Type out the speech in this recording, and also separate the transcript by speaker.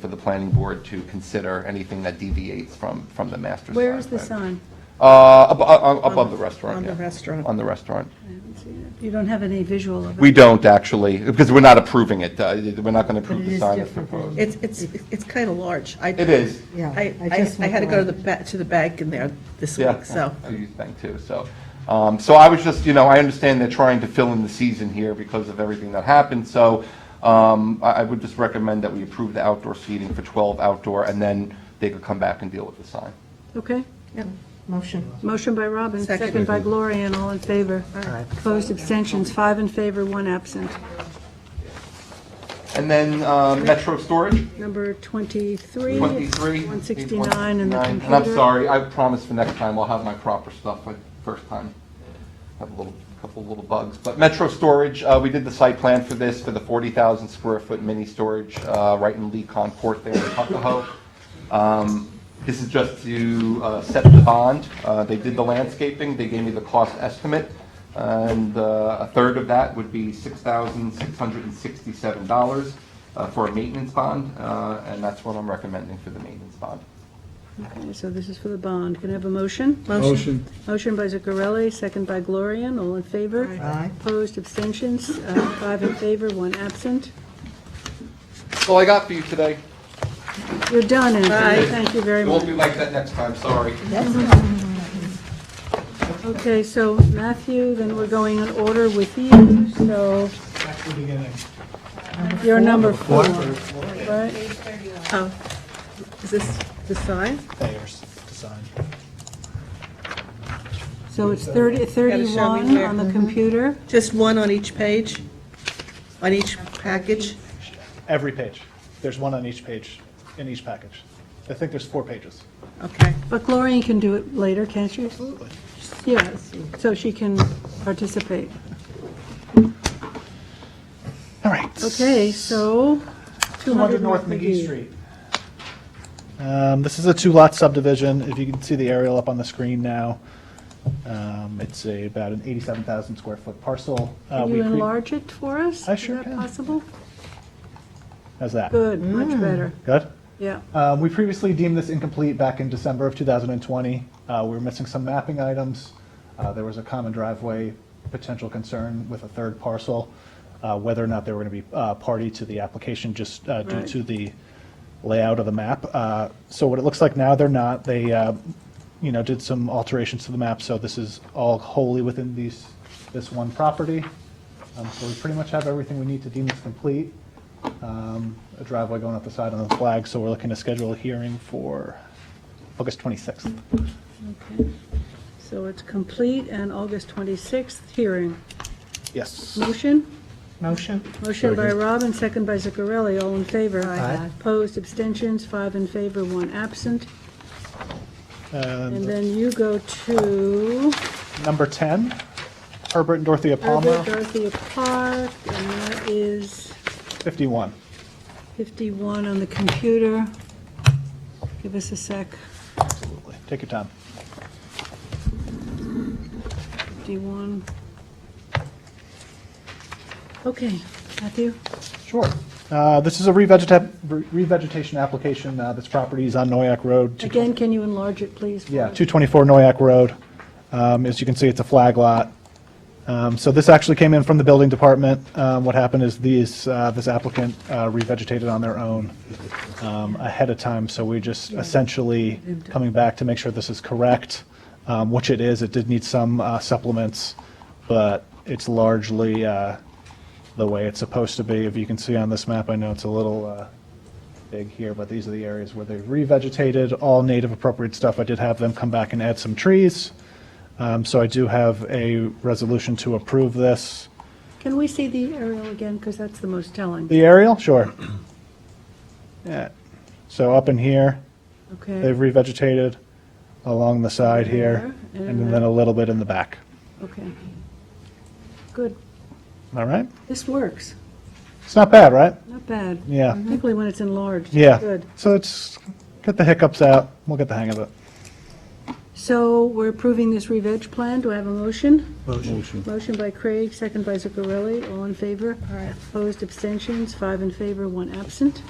Speaker 1: planning board to consider anything that deviates from, from the master sign.
Speaker 2: Where is the
Speaker 1: plan.
Speaker 2: sign?
Speaker 1: Uh, ab- uh, above
Speaker 3: the-
Speaker 1: the restaurant,
Speaker 3: on the
Speaker 1: yeah.
Speaker 3: restaurant.
Speaker 1: On the restaurant.
Speaker 2: I haven't seen it. You don't have any visual of it?
Speaker 1: We don't actually, because we're not approving it. uh, We're not going to approve
Speaker 4: it
Speaker 1: the
Speaker 4: is
Speaker 1: sign that's
Speaker 4: different than-
Speaker 1: proposed.
Speaker 3: It's, it's, it's kind of large. I-
Speaker 1: It is.
Speaker 4: Yeah,
Speaker 3: I,
Speaker 4: I
Speaker 3: I
Speaker 4: just
Speaker 3: I had to
Speaker 4: went
Speaker 3: go to
Speaker 4: by.
Speaker 3: the, ba- to the bank in there this
Speaker 1: Yeah,
Speaker 3: week, so.
Speaker 1: Do you think too, so. Um, so I was just, you know, I understand they're trying to fill in the season here because of everything that happened, so, um, I, I would just recommend that we approve the outdoor seating for twelve outdoor, and then they could come back and deal with the sign.
Speaker 2: Okay.
Speaker 4: Motion.
Speaker 2: Motion by Robin,
Speaker 3: Second.
Speaker 2: second by Gloria, and all in favor. Opposed, abstentions, five in favor, one absent.
Speaker 1: And then, um, Metro Storage,
Speaker 2: Number 23.
Speaker 1: twenty-three.
Speaker 2: 169 in the
Speaker 1: 829.
Speaker 2: computer.
Speaker 1: And I'm sorry, I promise for next time I'll have my proper stuff, like, first time. have a little, couple little bugs. But Metro Storage, uh, we did the site plan for this, for the 40,000 square foot mini storage, uh, right in Lee Concourt there in Tuckahoe. Um, This is just to uh, set the bond. Uh, They did the landscaping, they gave me the cost estimate, and uh, a third of that would be $6,667 uh, for a maintenance bond, uh, and that's what I'm recommending for the maintenance bond.
Speaker 2: Okay, So this is for the bond. Can I have a motion?
Speaker 5: Motion.
Speaker 2: Motion by Zuccarelli, second by Gloria, and all in favor.
Speaker 4: Aye.
Speaker 2: Opposed, abstentions, uh, five in favor, one absent.
Speaker 1: That's all I got for you today.
Speaker 2: You're done, Anthony.
Speaker 3: Bye.
Speaker 2: Thank you very
Speaker 1: It won't be
Speaker 2: much.
Speaker 1: like that next time, sorry.
Speaker 2: Okay, so Matthew, then we're going in order with you, so
Speaker 6: That's the beginning.
Speaker 2: you're number four, right?
Speaker 3: Oh, Is this the sign?
Speaker 6: Thayer's design.
Speaker 2: So it's 30, 31
Speaker 3: where.
Speaker 2: on the computer.
Speaker 3: Just one on each page? On each package?
Speaker 6: Every page. There's one on each page, in each package. I think there's four pages.
Speaker 3: Okay.
Speaker 2: But Gloria can do it later, can't she? Yes, so she can participate.
Speaker 6: All right.
Speaker 2: Okay, so.
Speaker 6: 200 North McGee Street. Um, This is a two-lot subdivision. If you can see the aerial up on the screen now, um, it's a- about an 87,000 square foot parcel. Uh,
Speaker 2: Can
Speaker 6: we
Speaker 2: you
Speaker 6: cre-
Speaker 2: enlarge it for us?
Speaker 6: I sure
Speaker 2: Is that
Speaker 6: can.
Speaker 2: possible?
Speaker 6: How's that?
Speaker 2: Good,
Speaker 6: Mm.
Speaker 2: much better,
Speaker 6: Good?
Speaker 2: yeah.
Speaker 6: Um, We previously deemed this incomplete back in December of 2020. Uh, We were missing some mapping items. Uh, There was a common driveway potential concern with a third parcel, uh, whether or not they were going to be uh, party to the application just uh, due
Speaker 2: Right.
Speaker 6: to the layout of the map. Uh, So what it looks like now, they're not. They, uh, you know, did some alterations to the map, so this is all wholly within these, this one property. Um, So we pretty much have everything we need to deem this complete um, a driveway going up the side on the flag, so we're looking to schedule a hearing for August 26th.
Speaker 2: Okay. So it's complete and August 26th hearing.
Speaker 6: Yes.
Speaker 2: Motion?
Speaker 4: Motion.
Speaker 2: Motion by Robin, second by Zuccarelli, all in favor. Opposed, abstentions, five in favor, one absent. And
Speaker 6: And
Speaker 2: then you go to
Speaker 6: Number 10, Herbert and Dorothea
Speaker 2: Herbert
Speaker 6: Palmer,
Speaker 2: Dorothea Park, and that is
Speaker 6: 51.
Speaker 2: 51 on the computer. Give us a sec.
Speaker 6: Absolutely. Take your time.
Speaker 2: 51. Okay, Matthew?
Speaker 6: Sure. Uh, This is a revegeta- re- revegetation application. Uh, This property is on Noyak Road. two-
Speaker 2: Again, can you enlarge it, please?
Speaker 6: Yeah, 224 Noyak Road. Um, As you can see, it's a flag lot. Um, So this actually came in from the building department. Um, What happened is these, uh, this applicant uh, revegetated on their own um, ahead of time, so we're just essentially coming back to make sure this is correct, um, which it is. It did need some uh, supplements, but it's largely uh, the way it's supposed to be. If you can see on this map, I know it's a little uh, big here, but these are the areas where they've revegetated, all native appropriate stuff. I did have them come back and add some trees. Um, So I do have a resolution to approve this.
Speaker 2: Can we see the aerial again, because that's the most telling?
Speaker 6: The aerial, sure. Yeah. So up in here,
Speaker 2: Okay,
Speaker 6: they've revegetated along the side here,
Speaker 2: There,
Speaker 6: and then a little bit in the back.
Speaker 2: okay. Good.
Speaker 6: All right?
Speaker 2: This works,
Speaker 6: It's not bad, right?
Speaker 2: not bad,
Speaker 6: Yeah.
Speaker 2: particularly when it's enlarged.
Speaker 6: Yeah.
Speaker 2: Good.
Speaker 6: So it's, get the hiccups out. We'll get the hang of it.
Speaker 2: So we're approving this re-veg plan. Do I have a motion?
Speaker 5: Motion.
Speaker 2: Motion by Craig, second by Zuccarelli. All in favor? Opposed, abstentions, five in favor, one absent.